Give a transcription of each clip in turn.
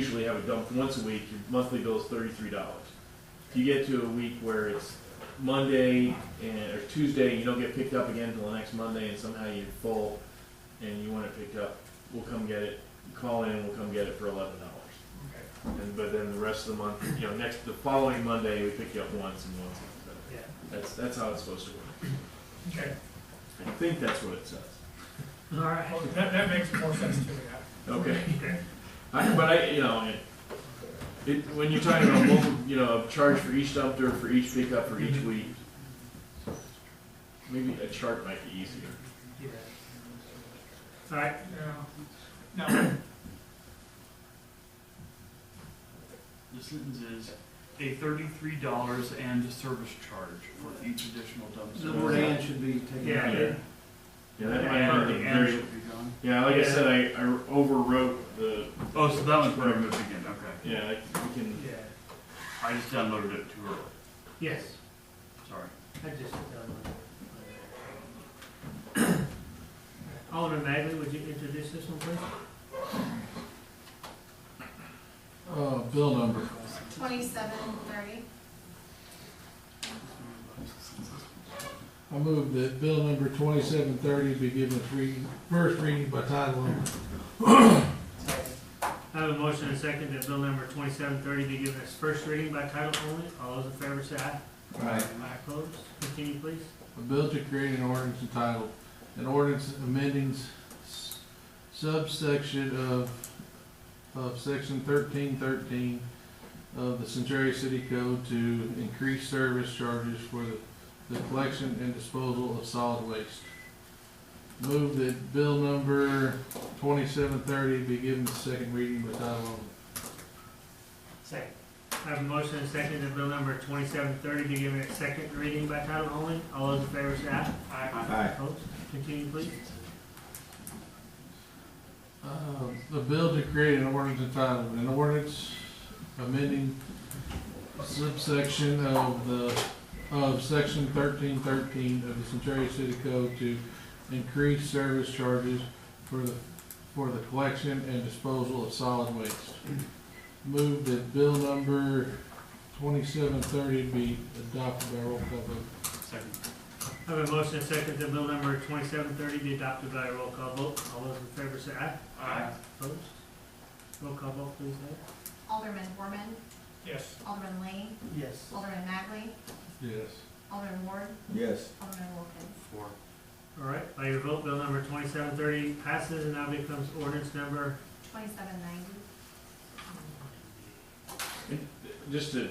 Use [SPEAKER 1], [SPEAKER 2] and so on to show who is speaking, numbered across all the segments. [SPEAKER 1] usually have a dump once a week, your monthly bill is thirty-three dollars. If you get to a week where it's Monday and, or Tuesday, and you don't get picked up again until the next Monday, and somehow you're full, and you want it picked up, we'll come get it, call in, and we'll come get it for eleven dollars.
[SPEAKER 2] Okay,
[SPEAKER 1] And, but then the rest of the month, you know, next, the following Monday, we pick you up once and once, so
[SPEAKER 2] yeah,
[SPEAKER 1] that's, that's how it's supposed to work.
[SPEAKER 2] okay.
[SPEAKER 1] I think that's what it says.
[SPEAKER 2] All right. Well, that, that makes more sense to me now.
[SPEAKER 1] Okay.
[SPEAKER 2] Okay.
[SPEAKER 1] I, but I, you know, it, it, when you're talking about multiple, you know, a charge for each dumpster, for each pickup, for each week, maybe a chart might be easier.
[SPEAKER 2] Yeah. All right, now, now,
[SPEAKER 3] The sentence is a thirty-three dollars and a service charge for each additional
[SPEAKER 4] The
[SPEAKER 3] dumpster.
[SPEAKER 4] word and should be taken.
[SPEAKER 2] yeah,
[SPEAKER 4] out.
[SPEAKER 2] it-
[SPEAKER 1] Yeah, that might
[SPEAKER 3] And
[SPEAKER 1] be
[SPEAKER 3] the
[SPEAKER 1] the
[SPEAKER 3] and
[SPEAKER 1] very,
[SPEAKER 3] should be gone.
[SPEAKER 1] yeah, like I said, I, I overwrote the,
[SPEAKER 3] Oh, so that one's where I moved again, okay.
[SPEAKER 1] yeah, I- we can,
[SPEAKER 2] yeah,
[SPEAKER 3] I just downloaded it too early,
[SPEAKER 2] yes,
[SPEAKER 3] sorry.
[SPEAKER 2] I just. Alderman Magley, would you introduce this one, please?
[SPEAKER 5] Uh, bill number,
[SPEAKER 6] Twenty-seven thirty.
[SPEAKER 5] I move that bill number twenty-seven thirty be given its reading, first reading by title only.
[SPEAKER 2] I have a motion and a second that bill number twenty-seven thirty be given its first reading by title only. All those in favor say aye.
[SPEAKER 5] Right.
[SPEAKER 2] Aye opposed. Continue, please.
[SPEAKER 5] A bill to create an ordinance entitled, an ordinance amending s- subsection of, of section thirteen thirteen of the Centaria City Code to increase service charges for the, the collection and disposal of solid waste. Move that bill number twenty-seven thirty be given its second reading by title only.
[SPEAKER 2] Second. I have a motion and a second that bill number twenty-seven thirty be given its second reading by title only. All those in favor say aye.
[SPEAKER 4] Aye.
[SPEAKER 2] Opposed? Continue, please.
[SPEAKER 5] Uh, The bill to create an ordinance entitled, an ordinance amending subsection of the, of section thirteen thirteen of the Centaria City Code to increase service charges for the, for the collection and disposal of solid waste. Move that bill number twenty-seven thirty be adopted by roll call vote.
[SPEAKER 3] Second.
[SPEAKER 2] I have a motion and a second that bill number twenty-seven thirty be adopted by a roll call vote. All those in favor say aye.
[SPEAKER 3] Aye.
[SPEAKER 2] Opposed? Roll call vote, please, Ed.
[SPEAKER 6] Alderman Borman,
[SPEAKER 2] Yes.
[SPEAKER 6] Alderman Lane,
[SPEAKER 2] Yes.
[SPEAKER 6] Alderman Magley,
[SPEAKER 5] Yes.
[SPEAKER 6] Alderman Ward,
[SPEAKER 4] Yes.
[SPEAKER 6] Alderman Wilkins.
[SPEAKER 3] Four.
[SPEAKER 2] All right, by your vote, bill number twenty-seven thirty passes and now becomes ordinance number,
[SPEAKER 6] Twenty-seven ninety.
[SPEAKER 1] just to,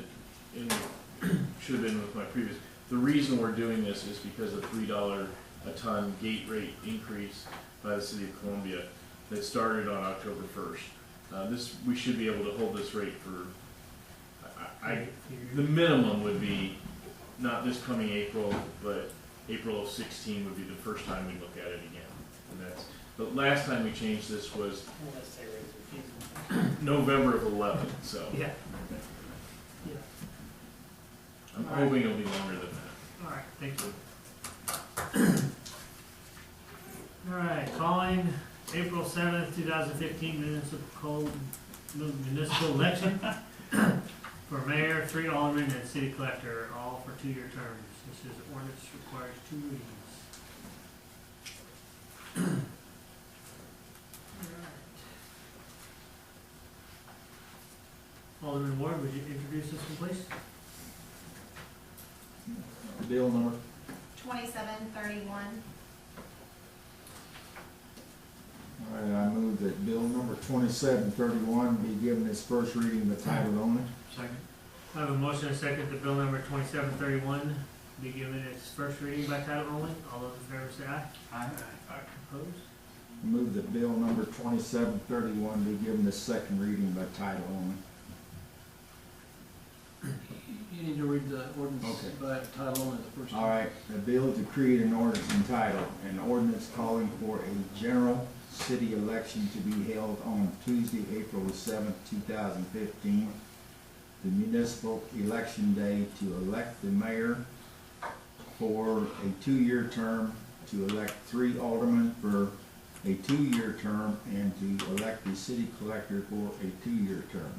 [SPEAKER 1] and should have been with my previous, the reason we're doing this is because of three dollar a ton gate rate increase by the city of Columbia that started on October first. Uh, this, we should be able to hold this rate for, I, I, the minimum would be not this coming April, but April of sixteen would be the first time we look at it again. And that's, the last time we changed this was November of eleven, so
[SPEAKER 2] yeah.
[SPEAKER 1] I'm hoping it'll be longer than that.
[SPEAKER 2] All right, thank you. All right, calling April seventh, two thousand fifteen municipal, municipal election for mayor, three aldermen, and city collector, all for two-year terms. This is ordinance requires two readings. Alderman Ward, would you introduce this one, please?
[SPEAKER 4] Bill number
[SPEAKER 6] Twenty-seven thirty-one.
[SPEAKER 4] All right, uh, I move that bill number twenty-seven thirty-one be given its first reading by title only.
[SPEAKER 3] Second.
[SPEAKER 2] I have a motion and a second that bill number twenty-seven thirty-one be given its first reading by title only. All those in favor say aye.
[SPEAKER 3] Aye.
[SPEAKER 2] Opposed?
[SPEAKER 4] I Move that bill number twenty-seven thirty-one be given its second reading by title only.
[SPEAKER 5] You need to read the ordinance
[SPEAKER 4] Okay.
[SPEAKER 5] by title only the first
[SPEAKER 4] All right, a bill to create an ordinance entitled, an ordinance calling for a general city election to be held on Tuesday, April the seventh, two thousand fifteen, the municipal election day to elect the mayor for a two-year term, to elect three aldermen for a two-year term and to elect the city collector for a two-year term.